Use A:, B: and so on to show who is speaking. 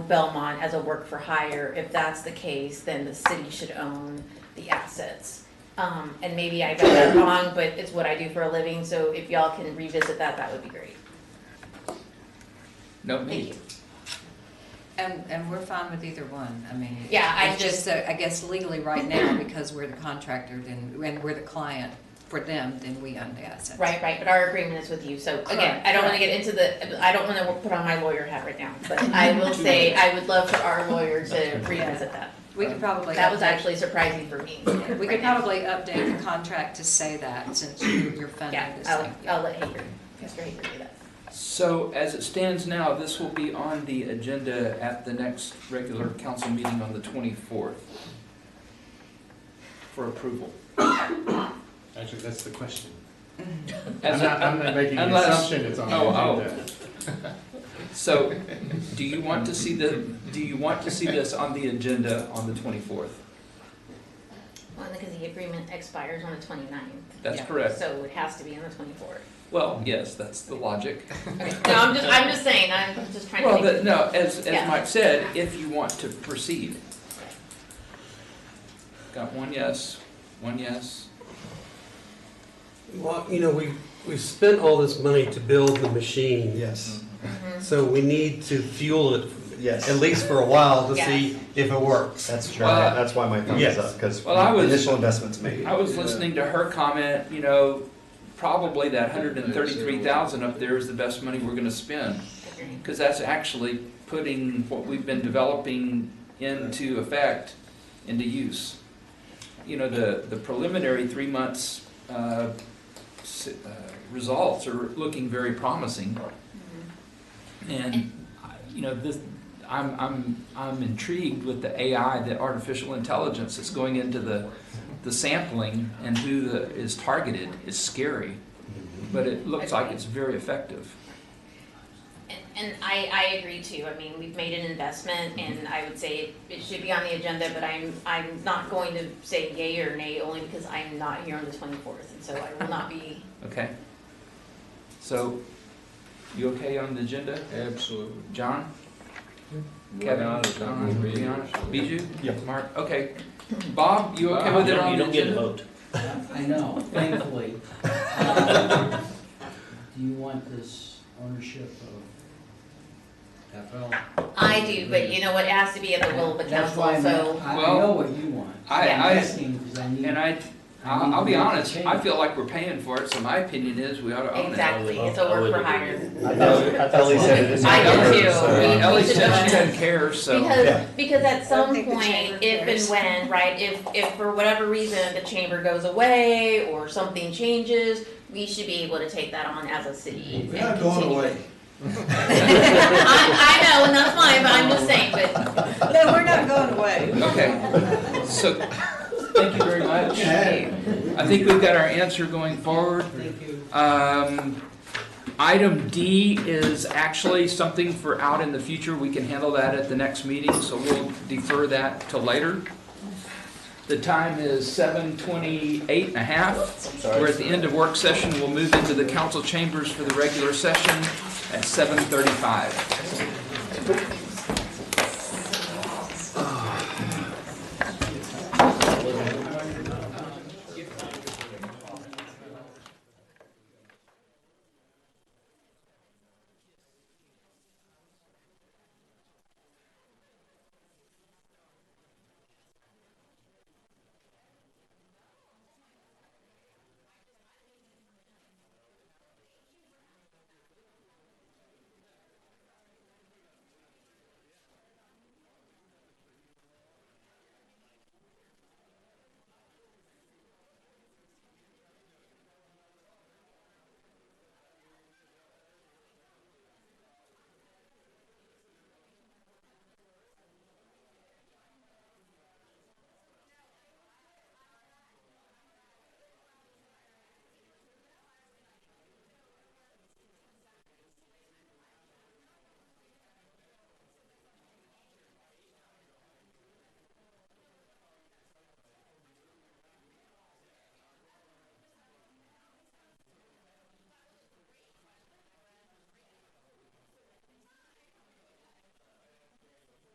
A: Belmont as a work for hire. If that's the case, then the city should own the assets. Um, and maybe I got that wrong, but it's what I do for a living, so if y'all can revisit that, that would be great.
B: No,
A: Thank
B: me.
A: you.
C: And, and we're fine with either one, I mean.
A: Yeah, I
C: it's
A: just-
C: that, I guess legally right now, because we're the contractor, then, and we're the client for them, then we own the assets.
A: Right, right, but our agreement is with you, so again,
C: Correct,
A: I don't wanna get into the, I don't wanna put on my lawyer hat right now, but I will say, I would love for our lawyer to revisit that.
C: We could probably.
A: That was
C: update-
A: actually surprising for me.
C: We could probably update the contract to say that, since you- you're funding
A: Yeah,
C: this
A: I'll,
C: thing.
A: I'll let Hager, Mr. Hager do that.
B: So as it stands now, this will be on the agenda at the next regular council meeting on the 24th for approval.
D: Actually, that's the question. I'm
B: As
D: not,
B: a-
D: I'm not making an
B: unless-
D: assumption it's on the
B: Oh, oh.
D: agenda.
B: So do you want to see the, do you want to see this on the agenda on the 24th?
A: Well, because the agreement expires on the 29th,
B: That's
C: Yeah.
B: correct.
A: so it has to be on the twenty-fourth.
B: Well, yes, that's the logic.
A: Okay, no, I'm just, I'm just saying, I'm just trying
B: Well,
A: to
B: the-
A: think.
B: no, as,
A: Yeah.
B: as Mike said, if you want to proceed. Got one yes, one yes.
E: Well, you know, we, we spent all this money to build the machine,
F: Yes,
A: Mhm.
E: so we need to fuel it,
F: yes.
E: Mm-hmm. at least for a while, to
A: Yes.
E: see if it works.
F: That's true. That's why my thumbs
E: Yes.
F: is up, because
B: Well, I was-
F: initial investment's made.
B: I was listening to her comment, you know, probably that hundred and thirty-three thousand up there is the best money we're gonna spend.
A: Agreed.
B: Because that's actually putting what we've been developing into effect, into use. You know, the, the preliminary three months, uh, s- uh, results are looking very promising. And, I- you know, this, I'm, I'm, I'm intrigued with the AI, the artificial intelligence that's going into the, the sampling and who the, is targeted is scary. But it looks like it's very effective.
A: And, and I, I agree too, I mean, we've made an investment, and I would say it- it should be on the agenda, but I'm, I'm not going to say yay or nay, only because I'm not here on the twenty-fourth, and so I will not be,
B: Okay. So, you okay on the agenda?
G: Absolutely.
B: John? Kevin?
G: Kevin, it's not
B: John,
G: gonna be-
B: Brianna, Bijou?
F: Yeah.
B: Mark, okay. Bob, Uh, you okay with it on the agenda?
H: vote. I know, thankfully. Um, Do you want this ownership of FL?
A: I do, but you know what, it has to be at the will of the
H: That's
A: council,
H: why I'm-
A: so.
H: I I
B: Well,
H: know what you want.
B: I-
H: I'm
B: I-
H: asking 'cause I need-
B: And I, I'll, I'll be honest, I feel like we're paying for it, so my opinion is we ought to own it.
A: Exactly, it's a work for hire.
F: I thought- I thought Lee said it is.
A: I do too.
F: So,
A: We-
F: uh,
B: Ellie
A: should
B: said
A: own
B: she
A: it.
B: doesn't care, so,
F: Yeah.
A: Because, because at some
C: think the chamber
A: point, if and
C: cares.
A: when, right, if, if for whatever reason, the chamber goes away or something changes, we should be able to take that on as a city.
G: We're
A: and
G: not going
A: continue
G: away.
A: it. I, I know, and that's fine, but I'm just saying, but
C: No, we're not going away.
B: okay. So, thank you very much.
G: Yeah.
B: I think we've got our answer going forward.
H: Thank you.
B: Um, item D is actually something for out in the future. We can handle that at the next meeting, so we'll defer that till later. The time is seven twenty-eight and a half. We're at the end of work session. We'll move into the council chambers for the regular session at seven thirty-five.